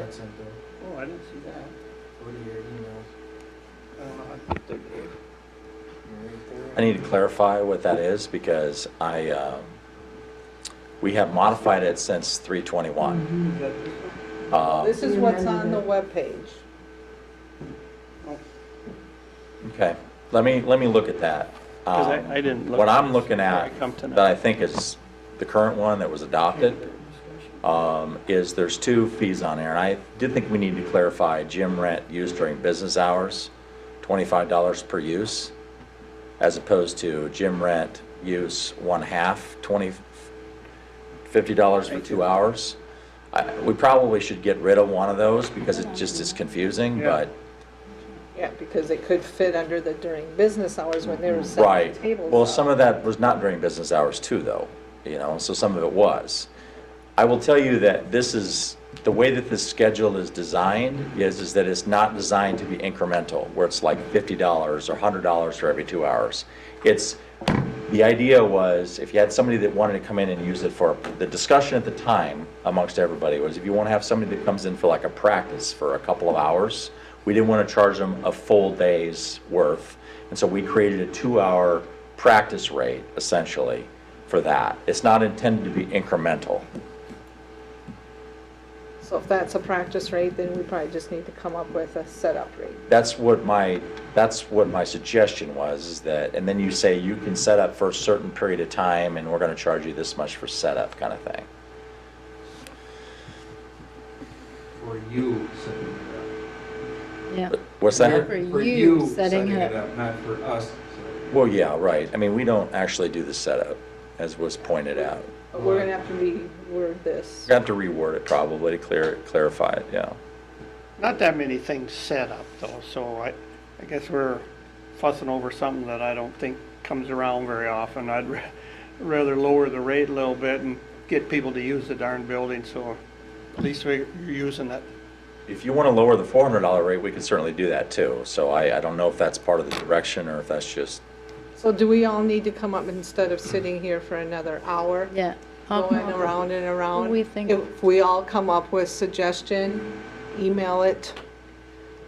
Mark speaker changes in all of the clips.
Speaker 1: had sent them,
Speaker 2: Oh, I didn't see that.
Speaker 1: go to your emails,
Speaker 2: Uh, I think they did.
Speaker 1: you're right there.
Speaker 3: I need to clarify what that is because I, um, we have modified it since 321.
Speaker 2: Is that this one?
Speaker 3: Uh,
Speaker 4: This is what's on the webpage.
Speaker 3: Okay, let me, let me look at that.
Speaker 2: 'Cause I-
Speaker 3: Um,
Speaker 2: I didn't look
Speaker 3: What
Speaker 2: at
Speaker 3: I'm
Speaker 2: it
Speaker 3: looking
Speaker 2: before I
Speaker 3: at,
Speaker 2: come tonight.
Speaker 3: that I think is the current one that was adopted, um, is there's two fees on there. And I did think we need to clarify gym rent used during business hours, $25 per use, as opposed to gym rent use one half, 20, $50 for two hours. I- We probably should get rid of one of those because it just is confusing,
Speaker 2: Yeah.
Speaker 3: but,
Speaker 4: Yeah, because it could fit under the during business hours when they were setting
Speaker 3: right.
Speaker 4: the tables
Speaker 3: Well,
Speaker 4: up.
Speaker 3: some of that was not during business hours too, though, you know, so some of it was. I will tell you that this is, the way that this schedule is designed is, is that it's not designed to be incremental, where it's like fifty dollars or hundred dollars for every two hours. It's, the idea was, if you had somebody that wanted to come in and use it for, the discussion at the time amongst everybody was, if you want to have somebody that comes in for like a practice for a couple of hours, we didn't want to charge them a full day's worth. And so we created a two-hour practice rate essentially for that. It's not intended to be incremental.
Speaker 4: So if that's a practice rate, then we probably just need to come up with a setup rate.
Speaker 3: That's what my, that's what my suggestion was, is that, and then you say you can set up for a certain period of time, and we're gonna charge you this much for setup, kind of thing.
Speaker 1: For you setting it up.
Speaker 5: Yeah.
Speaker 3: What's that?
Speaker 5: For you setting it
Speaker 1: up, not for us. setting it
Speaker 3: Well, yeah, right. I mean, we don't actually do the setup, as was pointed out.
Speaker 4: But We're gonna have to reword this.
Speaker 3: We're gonna have to reword it probably to clear, clarify it, yeah.
Speaker 2: Not that many things set up though, so I, I guess we're fussing over something that I don't think comes around very often. I'd ra- rather lower the rate a little bit and get people to use the darn building, so at least we're using it.
Speaker 3: If you wanna lower the four hundred dollar rate, we could certainly do that too. So I, I don't know if that's part of the direction or if that's just,
Speaker 4: So do we all need to come up, instead of sitting here for another hour?
Speaker 5: Yeah. I'll
Speaker 4: Going
Speaker 5: come up
Speaker 4: around and around?
Speaker 5: We think-
Speaker 4: If we all come up with suggestion, email it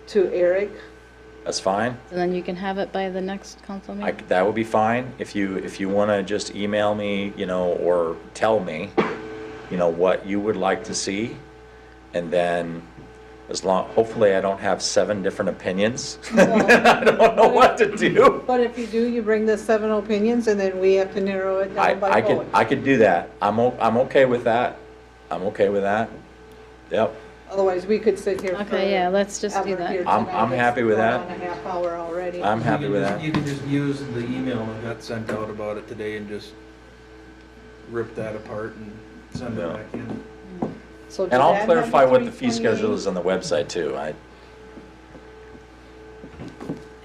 Speaker 4: to Eric.
Speaker 3: that's fine.
Speaker 5: with- And then you can have it by the next council
Speaker 3: I,
Speaker 5: meeting.
Speaker 3: that would be fine. If you, if you want to just email me, you know, or tell me, you know, what you would like to see. And then as long, hopefully I don't have seven different opinions. I don't know what to do.
Speaker 4: But if you do, you bring the seven opinions and then we have to narrow it
Speaker 3: I,
Speaker 4: down by
Speaker 3: I
Speaker 4: vote.
Speaker 3: could, I could do that. I'm, o- I'm okay with that. I'm okay with that. Yep.
Speaker 4: Otherwise, we could sit here for.
Speaker 5: Okay, yeah, let's just do
Speaker 4: ever here
Speaker 5: that.
Speaker 3: I'm-
Speaker 4: tonight.
Speaker 3: I'm
Speaker 4: It's
Speaker 3: happy with
Speaker 4: going
Speaker 3: that.
Speaker 4: On a half hour already.
Speaker 3: I'm
Speaker 1: up.
Speaker 3: happy
Speaker 1: You
Speaker 3: with
Speaker 1: can just-
Speaker 3: that.
Speaker 1: You can just use the email that got sent out about it today and just rip that apart and send it
Speaker 3: Yeah.
Speaker 1: back in.
Speaker 4: So
Speaker 3: And
Speaker 4: do that
Speaker 3: I'll
Speaker 4: number
Speaker 3: clarify what the fee schedule
Speaker 4: 328.
Speaker 3: is on the website too. I,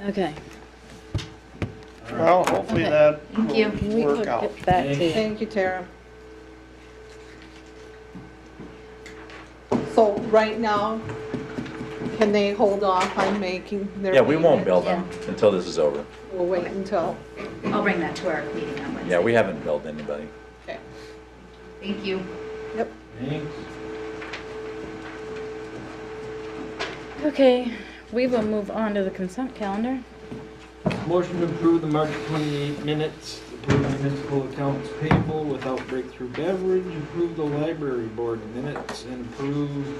Speaker 5: Okay.
Speaker 2: Well, hopefully
Speaker 5: Okay.
Speaker 2: that
Speaker 5: Can
Speaker 2: will
Speaker 5: we
Speaker 2: work
Speaker 5: look
Speaker 2: out.
Speaker 5: at that
Speaker 1: Thank
Speaker 5: too?
Speaker 4: Thank you, Tara. So right now, can they hold off on making their?
Speaker 3: yeah, we won't
Speaker 4: payments?
Speaker 3: bill them until this is over.
Speaker 4: We'll wait until,
Speaker 6: I'll bring that to our meeting on Wednesday.
Speaker 3: Yeah, we haven't billed anybody.
Speaker 4: okay.
Speaker 6: Thank you.
Speaker 4: Yep,
Speaker 1: Thanks.
Speaker 5: Okay, we will move on to the consent calendar.
Speaker 7: Motion to approve the March 28 minutes, approve the municipal accounts payable without breakthrough beverage, approve the library board minutes, and approve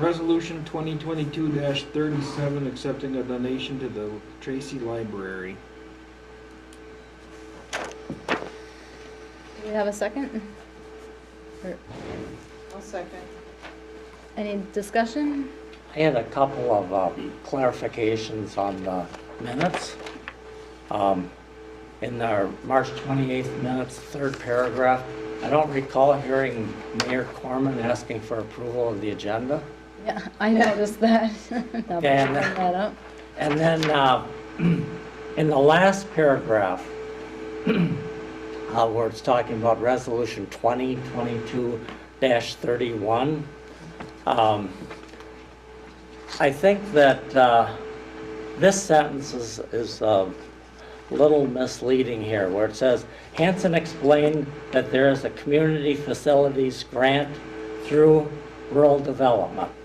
Speaker 7: resolution 2022-37, accepting a donation to the Tracy Library.
Speaker 5: Do we have a second? Or
Speaker 4: I'll second.
Speaker 5: Any discussion?
Speaker 8: I had a couple of um, clarifications on the minutes. Um, In our March 28th minutes, third paragraph, I don't recall hearing Mayor Corman asking for approval of the agenda.
Speaker 5: Yeah, I noticed that. Now that you
Speaker 8: And-
Speaker 5: bring that up.
Speaker 8: And then uh, in the last paragraph, uh, where it's talking about Resolution 2022-31, um, I think that uh, this sentence is is uh, a little misleading here, where it says, "Hanson explained that there is a community facilities grant through rural development.